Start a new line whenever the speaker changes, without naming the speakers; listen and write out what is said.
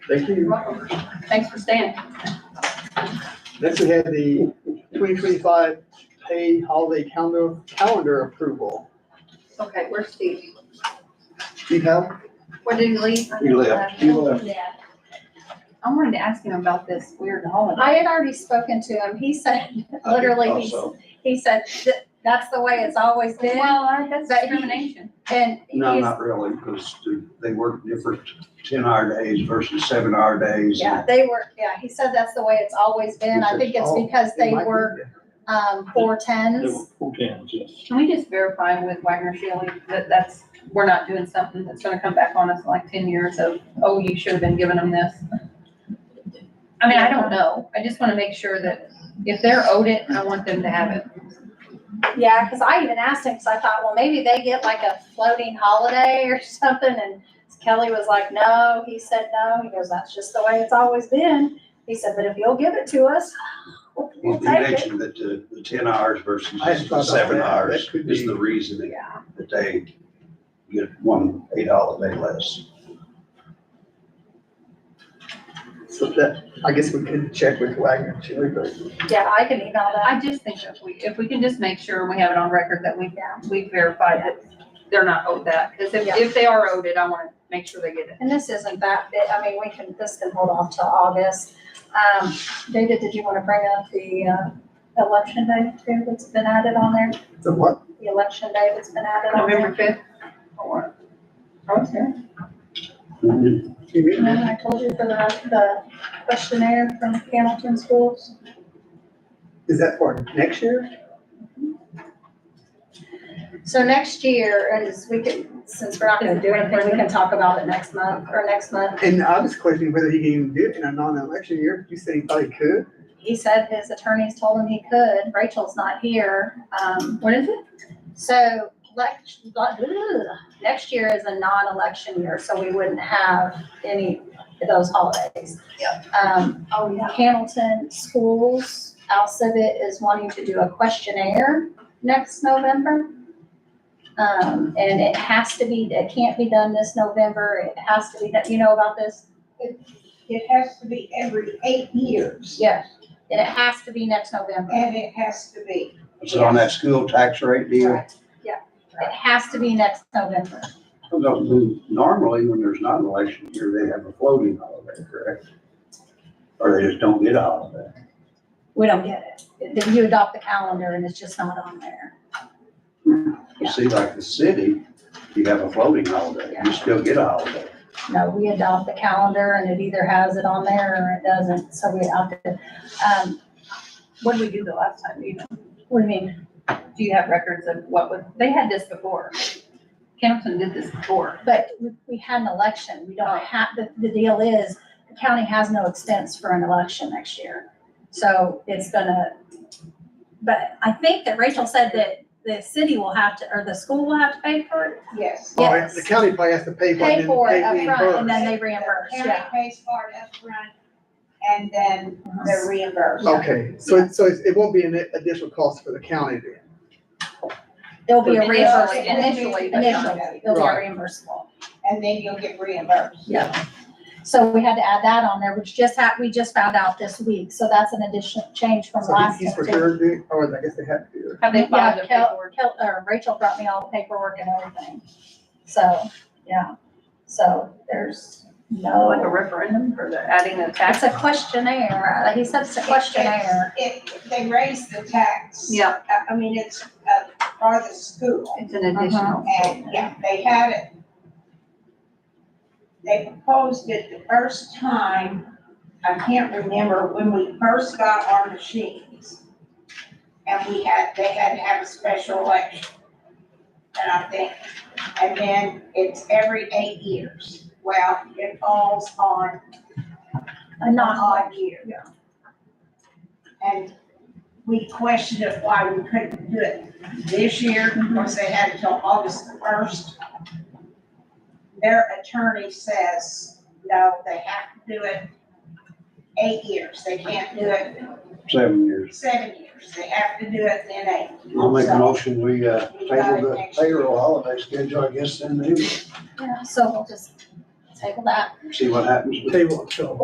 Thank you.
welcome. Thanks for staying.
Next, we have the twenty twenty-five pay holiday calendar, calendar approval.
Okay, where's Steve?
Steve Howe?
Where did he leave?
He left.
He left.
Yeah.
I wanted to ask him about this weird holiday.
I had already spoken to him. He said,
I did
literally, he,
also.
he said, "Th- that's the way it's always been.
Well, I- that's
But he-
discrimination.
And
No,
he's,
not really, because they work different ten-hour days versus seven-hour days.
yeah, they were, yeah, he said that's the way it's always been. I think
"Oh,
it's because they were, um, four
There
tens.
were four towns, yes.
Can we just verify with Wagner Shelly that that's, we're not doing something that's gonna come back on us in like ten years of, oh, you should have been giving them this? I mean, I don't know. I just wanna make sure that if they're owed it, I want them to have it.
Yeah, cause I even asked him, cause I thought, well, maybe they get like a floating holiday or something. And Kelly was like, no, he said, no. He goes, that's just the way it's always been. He said, but if you'll give it to us, we'll
Well,
we'll
he
take it.
mentioned that the, the ten hours versus
I hadn't thought about
the seven
that.
hours
That could
is
be-
the reasoning
Yeah.
that they get one eight-dollar day less.
So that, I guess we could check with Wagner too, but
Yeah, I can email that.
I just think if we, if we can just make sure we have it on record that we, we verified that they're not owed that. Because if,
Yeah.
if they are owed it, I want to make sure they get it.
And this isn't that big, I mean, we can, this can hold off till August. Um, David, did you want to bring up the, uh, election day too that's been added on there?
the what?
The election day that's been added on there?
November fifth?
Mhm.
You mean?
Remember I told you for the, the questionnaire from Hamilton Schools?
Is that for next year?
So next year is, we can, since we're not going to do anything, we can talk about it next month or next month.
And I was questioning whether he can even do it in a non-election year. You said he probably could.
He said his attorneys told him he could. Rachel's not here. Um,
What is it?
So lect- but, ugh, next year is a non-election year, so we wouldn't have any of those holidays. Um,
Oh, yeah.
Hamilton Schools, Alcivit is wanting to do a questionnaire next November. Um, and it has to be, it can't be done this November. It has to be, that you know about this?
It has to be every eight years,
Yes. And it has to be next November.
and it has to be.
Is it on that school tax rate deal?
Right.
It has to be next November.
No, Normally, when there's not an election year, they have a floating holiday, correct? Or they just don't get a holiday.
We don't get it. Then You adopt the calendar and it's just not on there.
You
Yeah.
see, like the city, you have a floating holiday,
Yeah.
you still get a holiday.
No, we adopt the calendar and it either has it on there or it doesn't, so we adopt it. Um,
What did we do the last time? Do you know?
what do you mean?
Do you have records of what was, they had this before. Hamilton did this before.
But we- we had an election, we don't have, the, the deal is, the county has no expense for an election next year. So it's gonna, but I think that Rachel said that the city will have to, or the school will have to pay for it?
Yes.
Or
Yes.
The county probably has to pay for it.
Pay
and
for it
then they
upfront and then
reimburse.
they reimburse, yeah.
County pays for it upfront, and then they're reimbursed.
Okay, so, it- so it it won't be an additional cost for the county then?
There'll be a
Initially,
reimbursement,
Initially, but not-
initially, there'll be a
Right.
reimbursable.
And then you'll get reimbursed.
Yeah. So we had to add that on there, which just had, we just found out this week, so that's an additional change from
So
last.
he- he's for
time.
sure, do- or I guess they have to do it.
Have they filed
Yeah,
their
Kel,
paperwork?
Kel, or Rachel brought me all the paperwork and everything, so, yeah, so there's
Oh, Like a
no,
referendum for the adding the
it's
tax?
a questionnaire, Uh, he said it's a questionnaire.
It, they raise the tax.
Yeah,
I- I mean, it's, uh, for the school,
it's an additional.
Uh-huh.
and, yeah, they had it. They proposed it the first time, I can't remember, when we first got our machines. And we had, they had to have a special election. And I think, and then it's every eight years. Well, it falls on
A
not
non,
odd year. And we questioned it why we couldn't do it this year, because they had until August the first. Their attorney says, no, they have to do it eight years, they can't do it
Seven years.
seven years, they have to do it in eight.
I'll make a
So-
motion, we, uh, table the payroll holiday schedule, I guess, then maybe.
yeah, so we'll just
table that.
see what happens.
table, so.